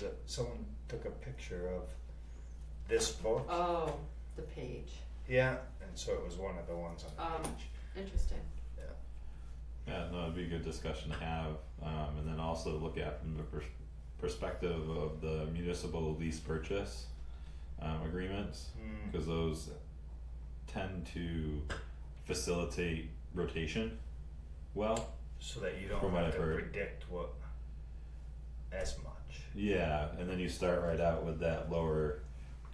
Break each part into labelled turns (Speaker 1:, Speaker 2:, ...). Speaker 1: a, someone took a picture of this book.
Speaker 2: Oh, the page.
Speaker 1: Yeah, and so it was one of the ones on
Speaker 2: Um,
Speaker 1: the page.
Speaker 2: Interesting.
Speaker 3: Yeah, no, it'd be a good discussion to have, um, and then also look at from the pers- perspective of the municipal lease purchase um, agreements,
Speaker 1: Hmm,
Speaker 3: because those tend to facilitate rotation well.
Speaker 1: so that you don't
Speaker 3: From what
Speaker 1: have
Speaker 3: I've
Speaker 1: to
Speaker 3: heard.
Speaker 1: predict what as much.
Speaker 3: Yeah, and then you start right out with that lower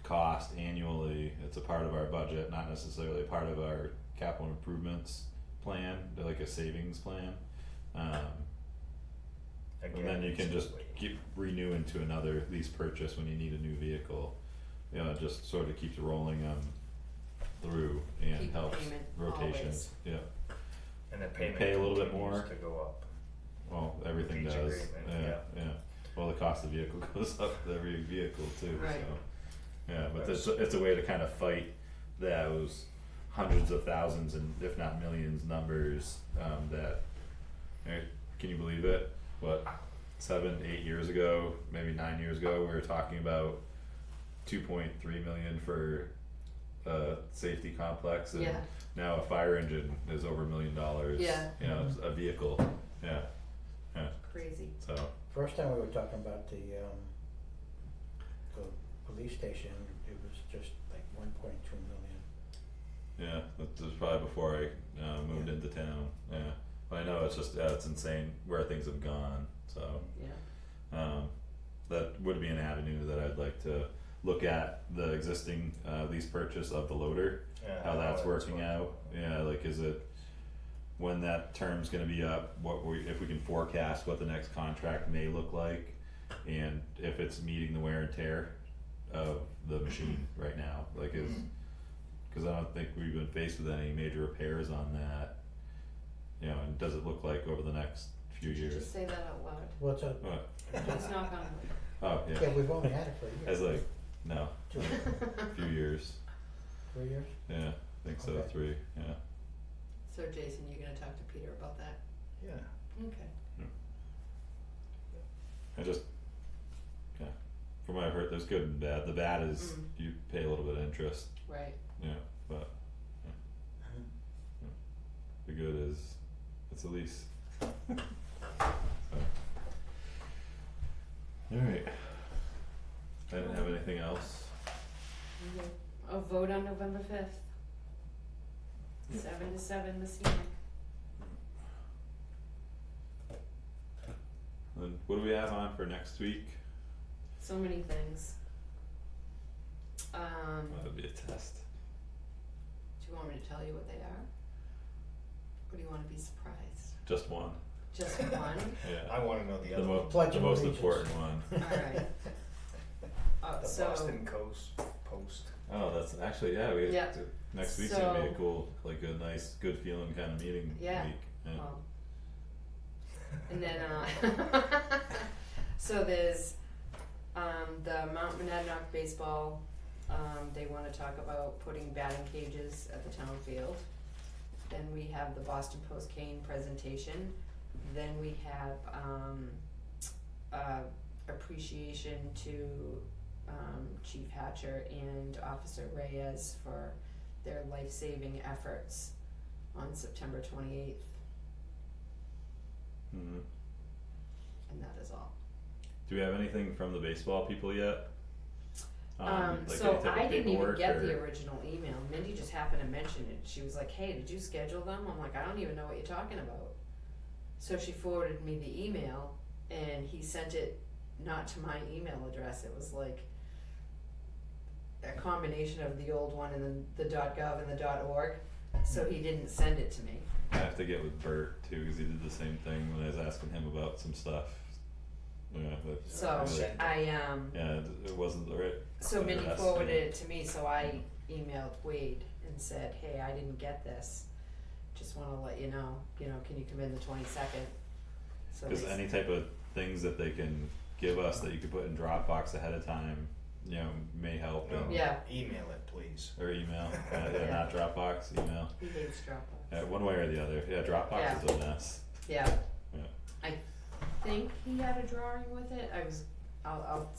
Speaker 3: cost annually. It's a part of our budget, not necessarily a part of our capital improvements plan, but like a savings plan. Um,
Speaker 1: Again,
Speaker 3: and then you can
Speaker 1: it's
Speaker 3: just
Speaker 1: way-
Speaker 3: keep renew into another lease purchase when you need a new vehicle. You know, it just sort of keeps rolling them through and
Speaker 2: Keep
Speaker 3: helps
Speaker 2: payment
Speaker 3: rotations.
Speaker 2: always.
Speaker 3: Yeah,
Speaker 1: and the payment
Speaker 3: pay a little bit
Speaker 1: continues
Speaker 3: more.
Speaker 1: to go up.
Speaker 3: well, everything
Speaker 1: Each
Speaker 3: does.
Speaker 1: agreement,
Speaker 3: Yeah,
Speaker 1: yeah.
Speaker 3: yeah. Well, the cost of vehicle goes up with every vehicle too.
Speaker 2: Right.
Speaker 3: So, yeah, but it's it's a way to kind of fight those hundreds of thousands and if not millions numbers um, that. eh, Can you believe it? What seven, eight years ago, maybe nine years ago, we were talking about two point three million for a safety complex, and
Speaker 2: Yeah.
Speaker 3: now a fire engine is over a million dollars.
Speaker 2: Yeah.
Speaker 3: you know, it's a vehicle. Yeah,
Speaker 2: Crazy.
Speaker 3: so
Speaker 4: First time we were talking about the um the police station, it was just like one point two million.
Speaker 3: yeah, that was probably before I uh, moved
Speaker 4: Yeah.
Speaker 3: into town. Yeah, but I know it's just yeah, it's insane where things have gone. So
Speaker 2: Yeah.
Speaker 3: um, that would be an avenue that I'd like to look at the existing uh, lease purchase of the loader.
Speaker 1: Yeah,
Speaker 3: how that's
Speaker 1: it's
Speaker 3: working
Speaker 1: working.
Speaker 3: out. Yeah, like is it when that term's gonna be up, what we, if we can forecast what the next contract may look like and if it's meeting the wear and tear of the machine right now, like is, cause I don't think we've been faced with any major repairs on that. You know, and does it look like over the next few
Speaker 2: Did you
Speaker 3: years?
Speaker 2: just say that out loud?
Speaker 4: What's up?
Speaker 3: What?
Speaker 2: Let's knock on wood.
Speaker 3: Oh,
Speaker 4: Yeah,
Speaker 3: yeah,
Speaker 4: we've only had it for a
Speaker 3: I was
Speaker 4: year,
Speaker 3: like, no,
Speaker 4: two,
Speaker 3: few years,
Speaker 4: three years,
Speaker 3: yeah, I think so,
Speaker 4: Okay.
Speaker 3: three, yeah.
Speaker 2: So Jason, you're gonna talk to Peter about that?
Speaker 1: Yeah,
Speaker 2: Okay.
Speaker 3: I just, yeah, from what I've heard, there's good and bad. The bad is
Speaker 2: Mm.
Speaker 3: you pay a little bit of interest,
Speaker 2: Right.
Speaker 3: yeah, but yeah. the good is it's a lease. All right. I didn't have anything else.
Speaker 2: A vote on November fifth.
Speaker 3: Yep.
Speaker 2: Seven to seven this evening.
Speaker 3: And what do we have on for next week?
Speaker 2: So many things. Um,
Speaker 3: That'd be a test.
Speaker 2: do you want me to tell you what they are? Or do you wanna be surprised?
Speaker 3: Just one.
Speaker 2: Just one?
Speaker 3: Yeah.
Speaker 1: I want to know the
Speaker 3: The,
Speaker 1: other.
Speaker 3: mo-
Speaker 1: one.
Speaker 4: Pledge
Speaker 3: the
Speaker 4: of
Speaker 3: most
Speaker 4: Allegiance.
Speaker 3: important one.
Speaker 2: Alright. Oh,
Speaker 1: The
Speaker 2: so.
Speaker 1: Boston Coast Post.
Speaker 3: Oh, that's actually yeah. We
Speaker 2: Yeah.
Speaker 3: next week's gonna be a
Speaker 2: So-
Speaker 3: cool, like a nice, good feeling kind of meeting
Speaker 2: Yeah.
Speaker 3: week. Yeah.
Speaker 2: Well, and then, uh, so there's, um, the Mount Monadnock baseball, um, they wanna talk about putting batting cages at the town field. Then we have the Boston Post Kane presentation, then we have, um, uh, appreciation to, um, Chief Hatcher and Officer Reyes for their life-saving efforts on September twenty-eighth.
Speaker 3: Mhm.
Speaker 2: and that is all.
Speaker 3: Do we have anything from the baseball people yet?
Speaker 2: Um,
Speaker 3: like any
Speaker 2: so
Speaker 3: type of
Speaker 2: I didn't even
Speaker 3: paperwork
Speaker 2: get the
Speaker 3: or-
Speaker 2: original email. Mindy just happened to mention it. She was like, "Hey, did you schedule them?" I'm like, "I don't even know what you're talking about." So she forwarded me the email, and he sent it not to my email address. It was like a combination of the old one and then the .gov and the .org. So he didn't send it to me.
Speaker 3: I have to get with Bert too because he did the same thing when I was asking him about some stuff. Yeah, but
Speaker 2: So
Speaker 1: Send it.
Speaker 2: I um,
Speaker 3: yeah, it, it wasn't the right.
Speaker 2: So Mindy
Speaker 3: Yes.
Speaker 2: forwarded it to me, so I emailed Wade and said, hey, I didn't get this. Just wanna let you know, you know, can you come in the twenty-second? So
Speaker 3: Because
Speaker 2: they s-
Speaker 3: any type of things that they can give us that you could put in Dropbox ahead of time, you know, may help.
Speaker 1: No.
Speaker 3: and-
Speaker 2: Yeah.
Speaker 1: Email it, please.
Speaker 3: Or email, uh, yeah,
Speaker 2: Yeah.
Speaker 3: not Dropbox, email.
Speaker 2: he hates Dropbox.
Speaker 3: Yeah, one way or the other. Yeah, Dropbox is a mess.
Speaker 2: Yeah.
Speaker 3: Yeah.
Speaker 2: I think he had a drawing with it, I was, I'll, I'll